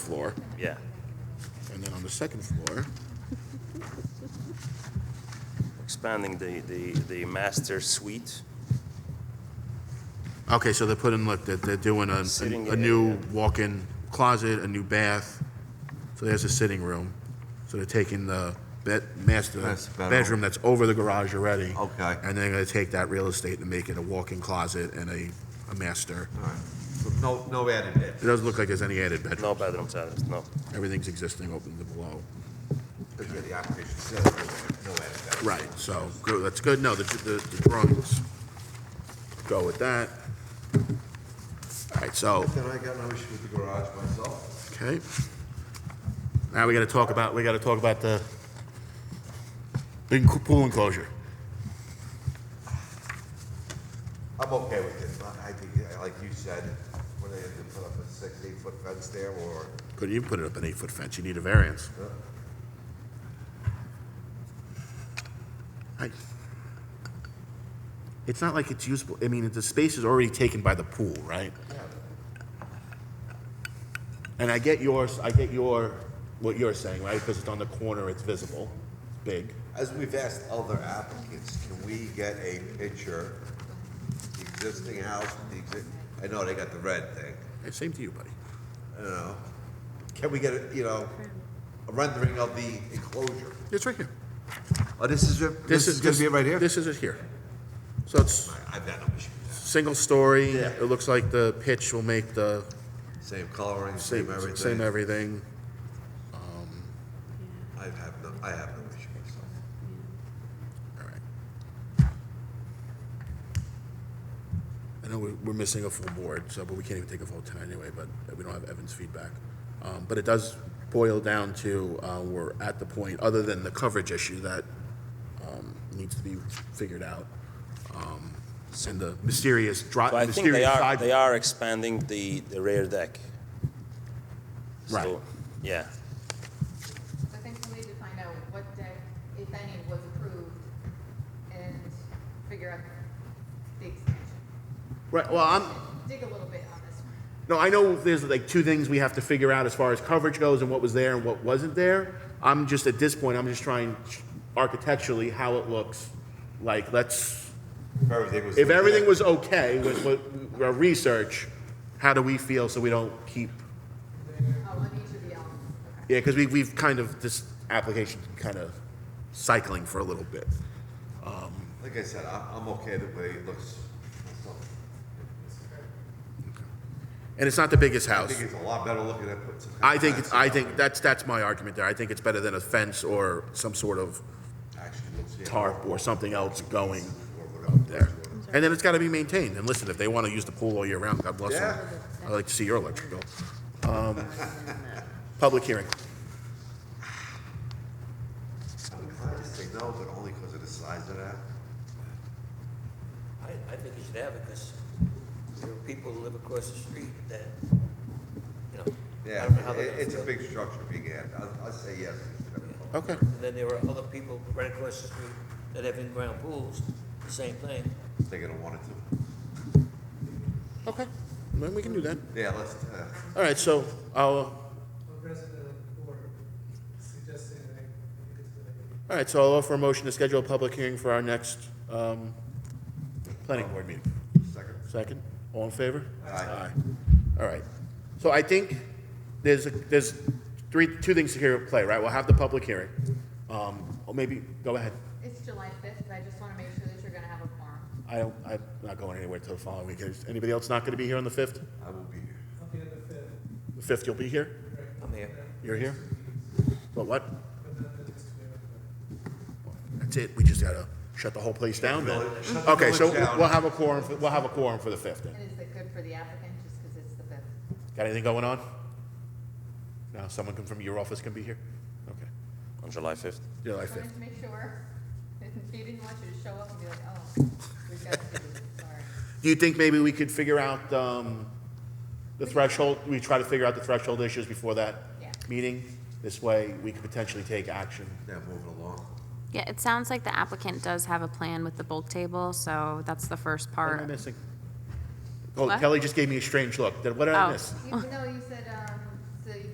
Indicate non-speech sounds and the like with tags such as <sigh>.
floor, Yeah. and then on the second floor, Expanding the, the, the master suite. okay, so they're putting, look, they're, they're doing a, Sitting a- a area. new walk-in closet, a new bath, so there's a sitting room. So they're taking the bed, master That's better. bedroom that's over the garage already. Okay. And they're gonna take that real estate and make it a walk-in closet and a, a master. All right. So No, no added bed. It doesn't look like there's any added bedroom. No bedrooms added, no. Everything's existing, open to below. Because where the occupation says, no added bed. Right, so, good, that's good, no, the, the the drawings go with that. All right, so, Then I got no issue with the garage myself. okay. Now we gotta talk about, we gotta talk about the big pool enclosure. I'm okay with it. I- I think, yeah, like you said, whether they had to put up a six, eight foot fence there or, Couldn't even put it up an eight-foot fence, you need a variance. I- It's not like it's usable, I mean, the space is already taken by the pool, right? And I get yours, I get your, what you're saying, right, because it's on the corner, it's visible, it's big. as we've asked other applicants, can we get a picture? The existing house, the exist, I know they got the red thing. Hey, Same to you, buddy. I don't know. Can we get, a you know, a rendering of the enclosure? It's right here. Oh, this is, your- this is gonna be right here? This is it here. So it's I- I've got no issue with single story, Yeah. it looks like the pitch will make the that. Same coloring, same same, same everything. everything. I have no, I have no issue myself. All right. I know we're, we're missing a full board, so, but we can't even take a vote tonight anyway, but we don't have Evan's feedback. Um, but it does boil down to, uh, we're at the point, other than the coverage issue that, um, needs to be figured out. Um, and the mysterious dri- But I think they mysterious are, they side. are expanding the, the rear deck. Right. So, Yeah, I think we need to find out what deck, if any, was approved and figure out the extension. Right, well, I'm, Dig a little bit on this one. No, I know there's like two things we have to figure out as far as coverage goes and what was there and what wasn't there. I'm just, at this point, I'm just trying architecturally how it looks. Like, let's, If everything was. if everything was okay with what, our research, how do we feel so we don't keep, Oh, on each of the elements, okay. yeah, because we, we've kind of, this application's kind of cycling for a little bit. Like I said, I'm, I'm okay the way it looks. myself. And it's not the biggest I house. think it's a lot better looking than put some. kind I of think, fence it's- I around think, it. that's, that's my argument there. I think it's better than a fence or some sort of Actually looks. yeah, tarp or something else going or up whatever. there. And then it's gotta be maintained, and listen, if they wanna use the pool all year round, God bless them. Yeah. I'd like to see your electric bill. Um, Public hearing. I'm inclined to say no, but only because of the size of that. I, I think you should have it, because there are people who live across the street that, you know. I Yeah, don't know how they're it- gonna it's a feel. big structure being added. I, I say yes. Okay. And then there are other people right across the street that have in-ground pools, the same thing. They're gonna want it to. Okay, then we can do that. Yeah, let's, uh, All right, so, I'll, uh, or resident of the board suggesting that you could do it. all right, so I'll offer a motion to schedule a public hearing for our next, um, planning board meeting. second. Second, all in favor? Aye. All right. So I think there's, a- there's three, two things here at play, right? We'll have the public hearing. Um, or maybe, go ahead. It's July fifth, I just wanna make sure that you're gonna have a forum. I don't, I'm not going anywhere till the following week. Is anybody else not gonna be here on the fifth? I will be here. I'll be at the fifth, The fifth, you'll be here? I'm here. You're here? But what? but then the next week. That's it, we just gotta shut the whole place down then? Shut the Okay, so village down. we'll have a quorum, for- we'll have a quorum for the fifth then. And is it good for the applicant, just 'cause it's the fifth? Got anything going on? No, someone can- from your office can be here? Okay, on July 5th. July Just fifth. wanted to make sure, <laughs> he didn't want you to show up and be like, oh, we've got to do this, sorry. Do you think maybe we could figure out um, the threshold, we try to figure out the threshold issues before that Yeah. meeting? This way, we could potentially take action. Now moving along. Yeah, it sounds like the applicant does have a plan with the bulk table, so that's the first What am I part. missing? Oh, What? Kelly just gave me a strange look. Did- What did I Oh. miss? You, no, you said, um,